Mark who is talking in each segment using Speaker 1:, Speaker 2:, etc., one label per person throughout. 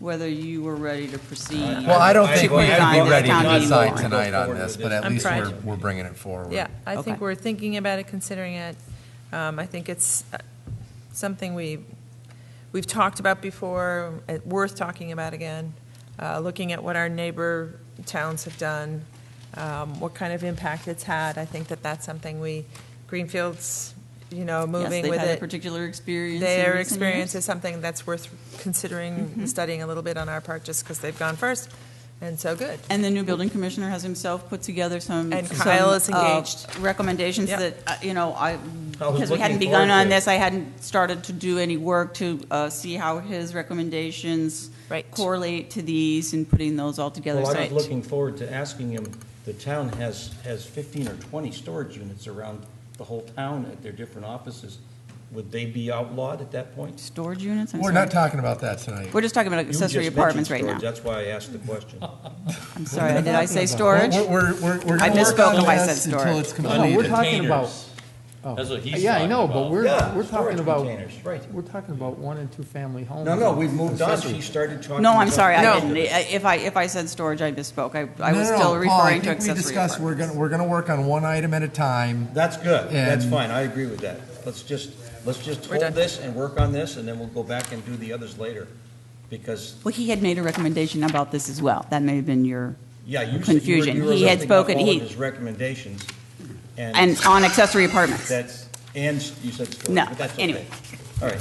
Speaker 1: whether you were ready to proceed.
Speaker 2: Well, I don't think
Speaker 1: Particularly
Speaker 2: we
Speaker 1: on
Speaker 2: have
Speaker 1: the
Speaker 2: to ready to
Speaker 1: town meeting
Speaker 2: decide
Speaker 1: warrant.
Speaker 2: tonight on this, but at
Speaker 3: I'm
Speaker 2: least
Speaker 3: fried.
Speaker 2: we're, we're bringing it forward.
Speaker 3: Yeah, I think
Speaker 1: Okay.
Speaker 3: we're thinking about it, considering it. Um, I think it's uh, something we, we've talked about before, uh, worth talking about again, Uh, looking at what our neighbor towns have done, um, what kind of impact it's had. I think that that's something we, Greenfield's, you know,
Speaker 1: Yes,
Speaker 3: moving
Speaker 1: they've
Speaker 3: with
Speaker 1: had a
Speaker 3: it.
Speaker 1: particular experience. in
Speaker 3: Their
Speaker 1: recent
Speaker 3: experience
Speaker 1: years. Mm-hmm.
Speaker 3: is something that's worth considering, studying a little bit on our part, just because they've gone first, and so good.
Speaker 1: And the new building commissioner has himself put together some.
Speaker 3: And
Speaker 1: some,
Speaker 3: Kyle is
Speaker 1: uh,
Speaker 3: engaged.
Speaker 1: Recommendations
Speaker 3: Yep.
Speaker 1: that, uh, you know, I,
Speaker 4: I was
Speaker 1: because we
Speaker 4: looking
Speaker 1: hadn't begun
Speaker 4: forward to
Speaker 1: on
Speaker 4: it.
Speaker 1: this, I hadn't started to do any work to uh, see how his recommendations
Speaker 3: Right.
Speaker 1: correlate to these and putting those all together.
Speaker 4: Well,
Speaker 1: So
Speaker 4: I was
Speaker 1: it-
Speaker 4: looking forward to asking him, the town has, has fifteen or twenty storage units around the whole town at their different offices. Would they be outlawed at that point?
Speaker 1: Storage units? I'm
Speaker 2: We're
Speaker 1: sorry.
Speaker 2: not talking about that tonight.
Speaker 1: We're just talking about
Speaker 4: You just
Speaker 1: accessory
Speaker 4: mentioned
Speaker 1: apartments right now.
Speaker 4: storage, That's why I asked the question.
Speaker 1: I'm sorry, did I say storage?
Speaker 2: We're, we're, we're- we're.
Speaker 1: I misspoke
Speaker 2: working
Speaker 1: if I
Speaker 2: on
Speaker 1: said
Speaker 2: this until
Speaker 1: storage.
Speaker 2: it's
Speaker 5: No, we're
Speaker 2: completed.
Speaker 5: talking about, Oh.
Speaker 4: Containers.
Speaker 6: That's what he's
Speaker 5: yeah, I
Speaker 6: talking
Speaker 5: know, but
Speaker 6: about.
Speaker 5: we're,
Speaker 4: Yeah,
Speaker 5: we're
Speaker 4: storage
Speaker 5: talking about,
Speaker 4: containers, right.
Speaker 5: we're talking about one and two-family homes.
Speaker 4: No, no, we've moved on. She started talking.
Speaker 1: No, I'm
Speaker 4: about-
Speaker 1: sorry, I
Speaker 3: No.
Speaker 1: didn't. I- If I, if I said storage, I misspoke. I, I was
Speaker 2: No, no, no,
Speaker 1: still
Speaker 2: Paul, I
Speaker 1: referring to
Speaker 2: think we
Speaker 1: accessory
Speaker 2: discussed We're
Speaker 1: apartments.
Speaker 2: gonna, we're gonna work on one item at a
Speaker 1: e-
Speaker 2: time.
Speaker 4: That's good. That's
Speaker 2: And-
Speaker 4: fine. I agree with that. Let's just, let's just
Speaker 3: We're
Speaker 4: hold
Speaker 3: done.
Speaker 4: this and work on this, and then we'll go back and do the others later. Because,
Speaker 1: Well, he had made a recommendation about this as well. That may have been your,
Speaker 4: yeah, you said you were,
Speaker 1: Confusion.
Speaker 4: you were
Speaker 1: He had
Speaker 4: lifting up
Speaker 1: spoken-
Speaker 4: all
Speaker 1: he-
Speaker 4: of his recommendations.
Speaker 1: and on accessory apartments.
Speaker 4: That's, and you said storage,
Speaker 1: No,
Speaker 4: but that's okay.
Speaker 1: anyway.
Speaker 4: All right,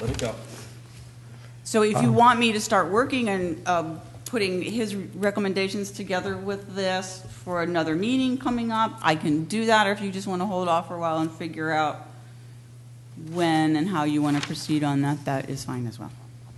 Speaker 4: let it go.
Speaker 1: So if you want me to start working and um, putting his recommendations together with this for another meeting coming up, I can do that, or if you just want to hold off for a while and figure out when and how you want to proceed on that, that is fine as well.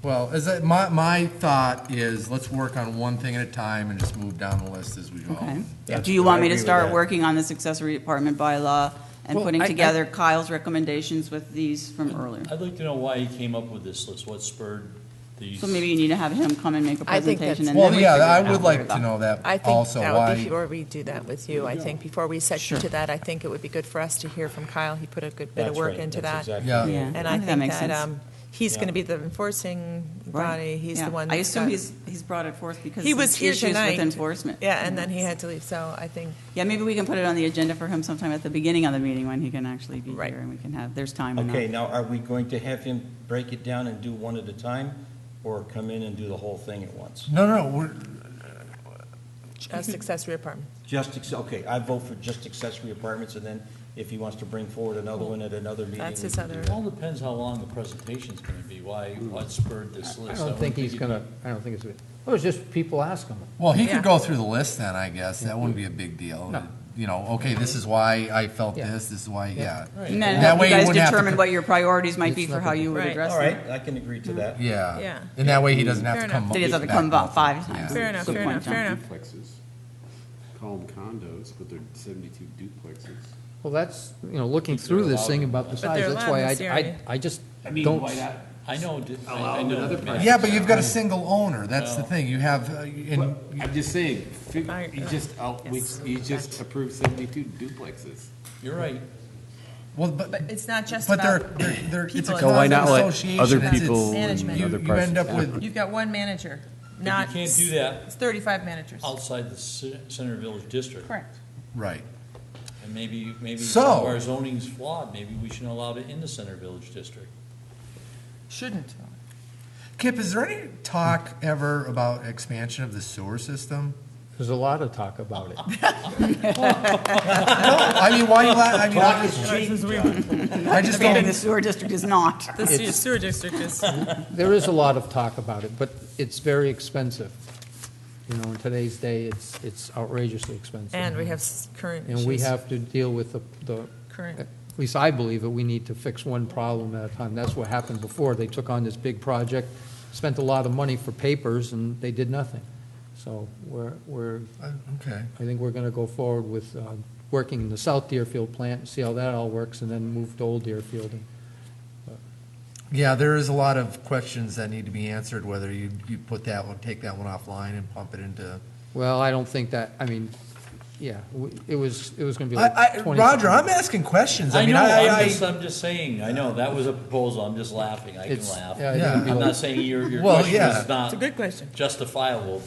Speaker 2: Well, as I, my, my thought is, let's work on one thing at a time and just move down the list as we go.
Speaker 1: Okay.
Speaker 4: That's
Speaker 1: Do you
Speaker 4: good.
Speaker 1: want
Speaker 4: I
Speaker 1: me to
Speaker 4: agree with
Speaker 1: start
Speaker 4: that.
Speaker 1: working on this accessory apartment bylaw and
Speaker 5: Well,
Speaker 1: putting
Speaker 5: I- I-
Speaker 1: together Kyle's recommendations with these from earlier?
Speaker 6: I'd like to know why he came up with this list, what spurred these.
Speaker 1: So maybe you need to have him come and make a
Speaker 3: I think
Speaker 1: presentation and
Speaker 3: that's-
Speaker 1: then
Speaker 2: Well,
Speaker 1: we
Speaker 2: yeah,
Speaker 1: figure
Speaker 2: I
Speaker 1: it
Speaker 2: would
Speaker 1: out
Speaker 2: like
Speaker 1: later,
Speaker 2: to
Speaker 1: though.
Speaker 2: know that
Speaker 3: I think
Speaker 2: also,
Speaker 3: that would be,
Speaker 2: why,
Speaker 3: before we do that with you, I think before we set you
Speaker 1: Sure.
Speaker 3: to that, I think it would be good for us to hear from Kyle. He put a good bit of
Speaker 4: That's
Speaker 3: work
Speaker 4: right.
Speaker 3: into
Speaker 4: That's
Speaker 3: that.
Speaker 4: exactly
Speaker 2: Yeah.
Speaker 4: right.
Speaker 1: Yeah.
Speaker 3: And
Speaker 1: I
Speaker 3: I
Speaker 1: think that
Speaker 3: think
Speaker 1: makes
Speaker 3: that,
Speaker 1: sense.
Speaker 3: um, he's
Speaker 4: Yeah.
Speaker 3: going to be the enforcing body. He's
Speaker 1: Yeah.
Speaker 3: the one.
Speaker 1: I
Speaker 3: that's
Speaker 1: assume
Speaker 3: got-
Speaker 1: he's, he's brought it forth because
Speaker 3: He
Speaker 1: of
Speaker 3: was here
Speaker 1: issues with
Speaker 3: tonight.
Speaker 1: enforcement.
Speaker 3: Yeah, and then he had to leave, so I think,
Speaker 1: Yeah, maybe we can put it on the agenda for him sometime at the beginning of the meeting when he can actually be
Speaker 3: Right.
Speaker 1: here and we can have, there's time enough.
Speaker 4: Okay, now are we going to have him break it down and do one at a time, or come in and do the whole thing at once?
Speaker 2: no, no, we're,
Speaker 3: just accessory apartment.
Speaker 4: Just, acc- okay, I vote for just accessory apartments, and then if he wants to bring forward another one at another meeting.
Speaker 3: That's
Speaker 4: we
Speaker 3: his
Speaker 4: can do
Speaker 3: other-
Speaker 4: that.
Speaker 6: It all depends how long the presentation's gonna be, why, what spurred this
Speaker 5: I
Speaker 6: list.
Speaker 5: don't
Speaker 6: wouldn't
Speaker 5: think he's
Speaker 6: he-
Speaker 5: gonna, I don't think it's, it was just people ask him.
Speaker 2: Well, he
Speaker 3: Yeah.
Speaker 2: could go through the list then, I guess. That wouldn't be a big deal.
Speaker 5: No.
Speaker 2: You know, okay, this is why I felt
Speaker 5: Yeah.
Speaker 2: this, this is why, yeah.
Speaker 1: And then
Speaker 2: That
Speaker 1: help
Speaker 2: way
Speaker 1: you
Speaker 2: he
Speaker 1: guys
Speaker 2: wouldn't have to
Speaker 1: determine
Speaker 2: co-
Speaker 1: what your priorities might
Speaker 5: It's
Speaker 1: be for
Speaker 5: not
Speaker 1: how
Speaker 5: gonna-
Speaker 1: you would
Speaker 3: Right.
Speaker 1: address
Speaker 4: All
Speaker 1: them.
Speaker 4: right, I can agree
Speaker 1: Mm-hmm.
Speaker 4: to that.
Speaker 2: Yeah.
Speaker 3: Yeah.
Speaker 2: And that way he doesn't have
Speaker 3: Fair
Speaker 2: to come.
Speaker 3: enough.
Speaker 1: Then he doesn't have to come
Speaker 2: back
Speaker 1: about five
Speaker 2: multiple-
Speaker 1: times.
Speaker 2: yeah.
Speaker 3: Fair enough,
Speaker 1: Good
Speaker 3: fair
Speaker 1: point,
Speaker 3: enough,
Speaker 1: John.
Speaker 3: fair enough.
Speaker 7: duplexes. Call them condos, but they're 72 duplexes.
Speaker 5: Well, that's, you know, looking through this thing about the
Speaker 3: But they're
Speaker 5: size, that's
Speaker 3: allowed
Speaker 5: why
Speaker 3: in this
Speaker 5: I, I,
Speaker 3: area.
Speaker 5: I just
Speaker 7: I mean,
Speaker 5: don't,
Speaker 7: why not
Speaker 6: I know, di- I
Speaker 7: Allow
Speaker 6: I know.
Speaker 7: another
Speaker 6: Matt.
Speaker 7: person.
Speaker 2: Yeah, but you've got a single owner. That's the thing. You have, uh, and,
Speaker 7: But I'm just saying, fig-
Speaker 3: I- uh,
Speaker 7: you just, out- we-
Speaker 3: Yes.
Speaker 7: you just approved 72 duplexes.
Speaker 6: You're right.
Speaker 2: well, but,
Speaker 3: It's not just
Speaker 2: but they're,
Speaker 3: about,
Speaker 2: they're, they're- it's a
Speaker 3: people.
Speaker 2: constant
Speaker 3: So why
Speaker 8: not let
Speaker 2: association.
Speaker 8: other
Speaker 2: It's- it's-
Speaker 8: people and
Speaker 3: Management.
Speaker 2: You,
Speaker 8: other
Speaker 2: you end up
Speaker 8: persons-
Speaker 2: with,
Speaker 3: you've got one manager,
Speaker 6: you
Speaker 3: not.
Speaker 6: can't do
Speaker 3: s-
Speaker 6: that-
Speaker 3: It's 35 managers.
Speaker 6: Outside the ci- Center Village District.
Speaker 3: Correct.
Speaker 2: right.
Speaker 6: And maybe, maybe
Speaker 2: So-
Speaker 6: some of our zoning's flawed, maybe we shouldn't allow it in the Center Village District.
Speaker 3: Shouldn't.
Speaker 2: Kip, is there any talk ever about expansion of the sewer system?
Speaker 5: there's a lot of talk about it.
Speaker 2: No, I mean, why you, la- I mean, I I just
Speaker 1: Expanding
Speaker 2: don't,
Speaker 1: the sewer district is not.
Speaker 3: The
Speaker 5: se- It's-
Speaker 3: sewer district is.
Speaker 5: There is a lot of talk about it, but it's very expensive. You know, in today's day, it's, it's outrageously expensive.
Speaker 3: And we have s- current issues.
Speaker 5: And we have to deal with the, the,
Speaker 3: Current.
Speaker 5: at least I believe that we need to fix one problem at a time. That's what happened before. They took on this big project, spent a lot of money for papers, and they did nothing. So we're, we're,
Speaker 2: okay.
Speaker 5: I think we're gonna go forward with, uh, working in the South Deerfield plant, and see how that all works, and then move to Old Deerfield. And
Speaker 2: Yeah, there is a lot of questions that need to be answered, whether you, you put that one, take that one offline and pump it into,
Speaker 5: Well, I don't think that, I mean, yeah, we- it was, it was going to be
Speaker 2: I,
Speaker 5: like
Speaker 2: I,
Speaker 5: 20.
Speaker 2: Roger, I'm asking questions. I,
Speaker 6: I
Speaker 2: mean,
Speaker 6: know,
Speaker 2: I,
Speaker 6: I'm
Speaker 2: I,
Speaker 6: just, I'm just saying, I know, that was a proposal, I'm just laughing, I can
Speaker 5: It's-
Speaker 6: laugh.
Speaker 5: yeah, I think
Speaker 2: Yeah.
Speaker 5: it'd be
Speaker 6: I'm
Speaker 5: like-
Speaker 6: not saying your, your
Speaker 2: Well,
Speaker 6: question
Speaker 2: yeah.
Speaker 6: is not
Speaker 3: It's a good question.
Speaker 6: justifiable,